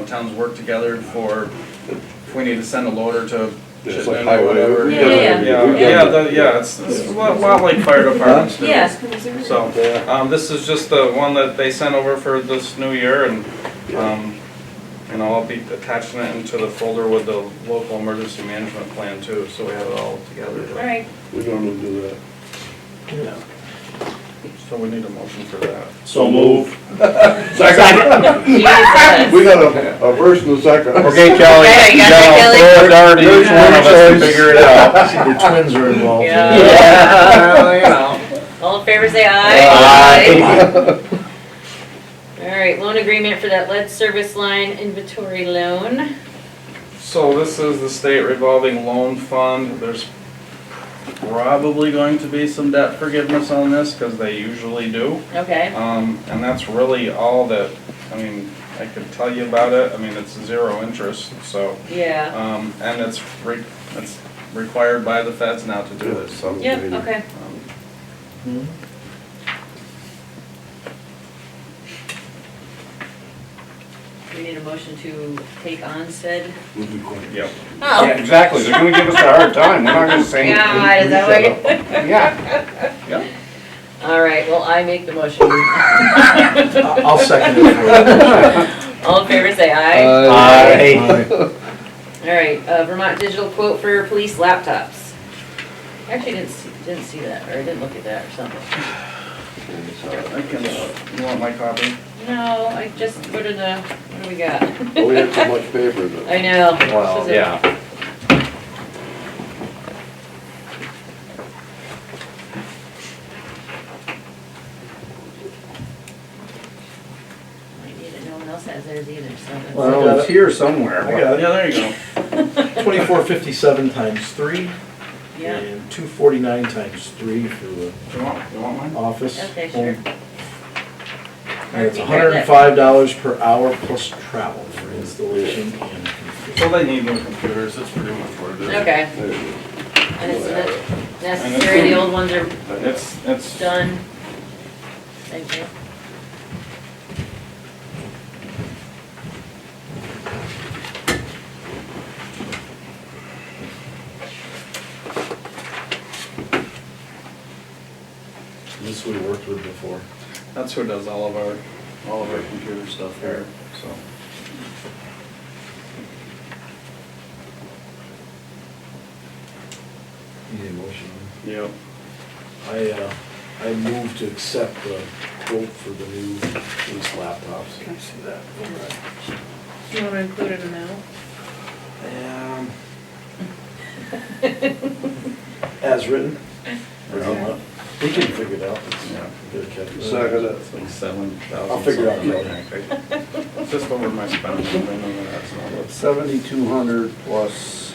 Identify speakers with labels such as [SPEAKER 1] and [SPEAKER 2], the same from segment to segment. [SPEAKER 1] towns work together for, if we need to send a loader to
[SPEAKER 2] It's like
[SPEAKER 1] Chittenden
[SPEAKER 2] highway.
[SPEAKER 1] or whatever.
[SPEAKER 2] We've
[SPEAKER 1] Yeah,
[SPEAKER 2] done it.
[SPEAKER 3] Yeah,
[SPEAKER 2] We've done
[SPEAKER 1] yeah,
[SPEAKER 2] it.
[SPEAKER 1] the- yeah, it's, it's a lot lot like fire departments do.
[SPEAKER 3] Yeah.
[SPEAKER 1] So,
[SPEAKER 2] Yeah.
[SPEAKER 1] um, this is just the one that they sent over for this new year and, um, and I'll be attaching it into the folder with the local emergency management plan too, so we have it all
[SPEAKER 3] All
[SPEAKER 1] together.
[SPEAKER 3] right,
[SPEAKER 2] We don't need to do that.
[SPEAKER 1] So we need a motion for that.
[SPEAKER 4] So move.
[SPEAKER 3] you need to-
[SPEAKER 2] We got a, a verse and a second.
[SPEAKER 4] Okay, Kelly.
[SPEAKER 3] Okay, you got that, Kelly?
[SPEAKER 4] Throw a dart at each one of us to figure it out.
[SPEAKER 5] The twins are involved.
[SPEAKER 3] Yeah.
[SPEAKER 1] Well, you know.
[SPEAKER 3] All in favor, say aye.
[SPEAKER 4] Aye.
[SPEAKER 3] All right, loan agreement for that lead service line inventory loan.
[SPEAKER 1] So this is the state revolving loan fund. There's probably going to be some debt forgiveness on this, cause they usually do.
[SPEAKER 3] Okay,
[SPEAKER 1] Um, and that's really all that, I mean, I could tell you about it. I mean, it's zero interest, so,
[SPEAKER 3] yeah.
[SPEAKER 1] um, and it's re, it's required by the feds now to do this, so.
[SPEAKER 3] Yep, okay.
[SPEAKER 1] um,
[SPEAKER 3] We need a motion to take on said.
[SPEAKER 2] We'll be quiet.
[SPEAKER 1] Yep.
[SPEAKER 4] Yeah,
[SPEAKER 3] Oh,
[SPEAKER 4] exactly, they're gonna give us a hard time, we're not gonna say anything.
[SPEAKER 3] God, is that what you?
[SPEAKER 4] Yeah,
[SPEAKER 3] All right, well, I make the motion.
[SPEAKER 5] I- I'll second it for you.
[SPEAKER 3] All in favor, say aye.
[SPEAKER 4] Aye.
[SPEAKER 5] Aye.
[SPEAKER 3] All right, uh, Vermont digital quote for police laptops. Actually, didn't see, didn't see that, or I didn't look at that or something.
[SPEAKER 1] I can, uh, you want my copy?
[SPEAKER 3] No, I just, what did, uh, what do we got?
[SPEAKER 2] Well, we have so much paper that.
[SPEAKER 3] I know. This
[SPEAKER 4] well,
[SPEAKER 3] is a-
[SPEAKER 4] yeah.
[SPEAKER 3] I need it, no one else has theirs either, so. that's-
[SPEAKER 4] Well, it's here somewhere.
[SPEAKER 5] I got
[SPEAKER 1] Uh, Yeah, there you go.
[SPEAKER 5] it. Twenty-four fifty-seven times three
[SPEAKER 3] Yeah,
[SPEAKER 5] and two forty-nine times three for the
[SPEAKER 1] Do you want, you want mine?
[SPEAKER 5] office.
[SPEAKER 3] okay, sure.
[SPEAKER 5] home. And it's
[SPEAKER 3] Mark, you
[SPEAKER 5] hundred
[SPEAKER 3] heard
[SPEAKER 5] and
[SPEAKER 3] that.
[SPEAKER 5] five dollars per hour plus travel for installation and.
[SPEAKER 1] So they need new computers, that's pretty much what it is.
[SPEAKER 3] Okay,
[SPEAKER 2] There you go.
[SPEAKER 3] and it's not necessary, the old ones are
[SPEAKER 1] It's, it's,
[SPEAKER 3] done. Thank you.
[SPEAKER 5] This we worked with before.
[SPEAKER 1] that's who does all of our, all of our computer stuff here, so.
[SPEAKER 5] Need a motion?
[SPEAKER 1] Yep.
[SPEAKER 5] I, uh, I move to accept the quote for the new police laptops. Can I see that?
[SPEAKER 3] Do you wanna include it now?
[SPEAKER 1] Um,
[SPEAKER 5] As written?
[SPEAKER 1] Yeah.
[SPEAKER 5] He can figure it out. It's-
[SPEAKER 1] Yeah.
[SPEAKER 5] Good catch.
[SPEAKER 2] Second it.
[SPEAKER 1] It's like seven thousand.
[SPEAKER 5] I'll figure it out
[SPEAKER 1] out. Just over my spending, I know that's not what's.
[SPEAKER 2] Seventy-two hundred plus.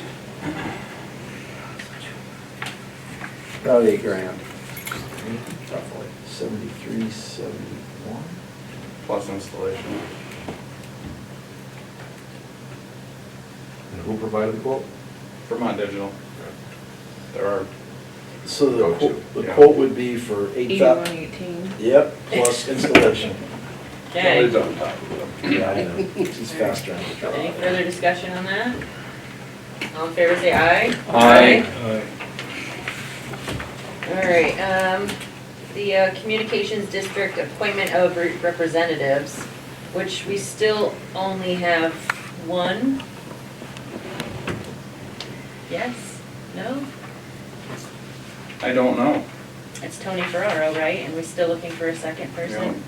[SPEAKER 2] About eight grand.
[SPEAKER 5] Roughly. Seventy-three, seventy-one?
[SPEAKER 1] Plus installation.
[SPEAKER 5] And who provided the quote?
[SPEAKER 1] Vermont Digital. There are,
[SPEAKER 5] So the
[SPEAKER 2] Go-to,
[SPEAKER 5] quote, the
[SPEAKER 1] yeah.
[SPEAKER 5] quote would be for eight thou- Yep, plus installation.
[SPEAKER 3] Okay,
[SPEAKER 2] Kelly's on top of it.
[SPEAKER 5] Yeah, I know. He's faster. on the draw.
[SPEAKER 3] any further discussion on that? All in favor, say aye.
[SPEAKER 4] Aye.
[SPEAKER 3] All right, um, the uh, Communications District appointment of re- representatives, which we still only have one. Yes, no,
[SPEAKER 1] I don't know.
[SPEAKER 3] it's Tony Ferraro, right, and we're still looking for a second person?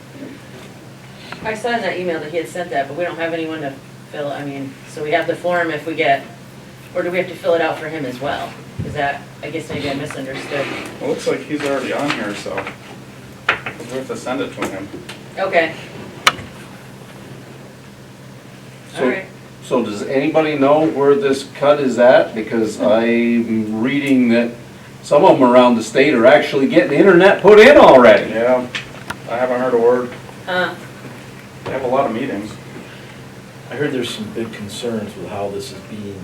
[SPEAKER 3] I saw in that email that he had sent that, but we don't have anyone to fill, I mean, so we have the form if we get, or do we have to fill it out for him as well? Is that, I guess maybe I misunderstood.
[SPEAKER 1] It looks like he's already on here, so we have to send it to him.
[SPEAKER 3] Okay, all
[SPEAKER 4] So,
[SPEAKER 3] right,
[SPEAKER 4] so does anybody know where this cut is at? Because I'm reading that some of them around the state are actually getting internet put in already.
[SPEAKER 1] Yeah, I haven't heard a word.
[SPEAKER 3] huh,
[SPEAKER 1] They have a lot of meetings.
[SPEAKER 5] I heard there's some big concerns with how this is being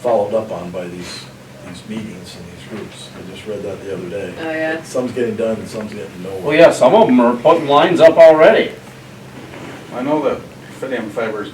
[SPEAKER 5] followed up on by these, these meetings and these groups. I just read that the other day.
[SPEAKER 3] Oh, yeah.
[SPEAKER 5] Some's getting done and some's getting nowhere.
[SPEAKER 4] Well, yeah, some of them are putting lines up already.
[SPEAKER 1] I know that Fidium Fiber's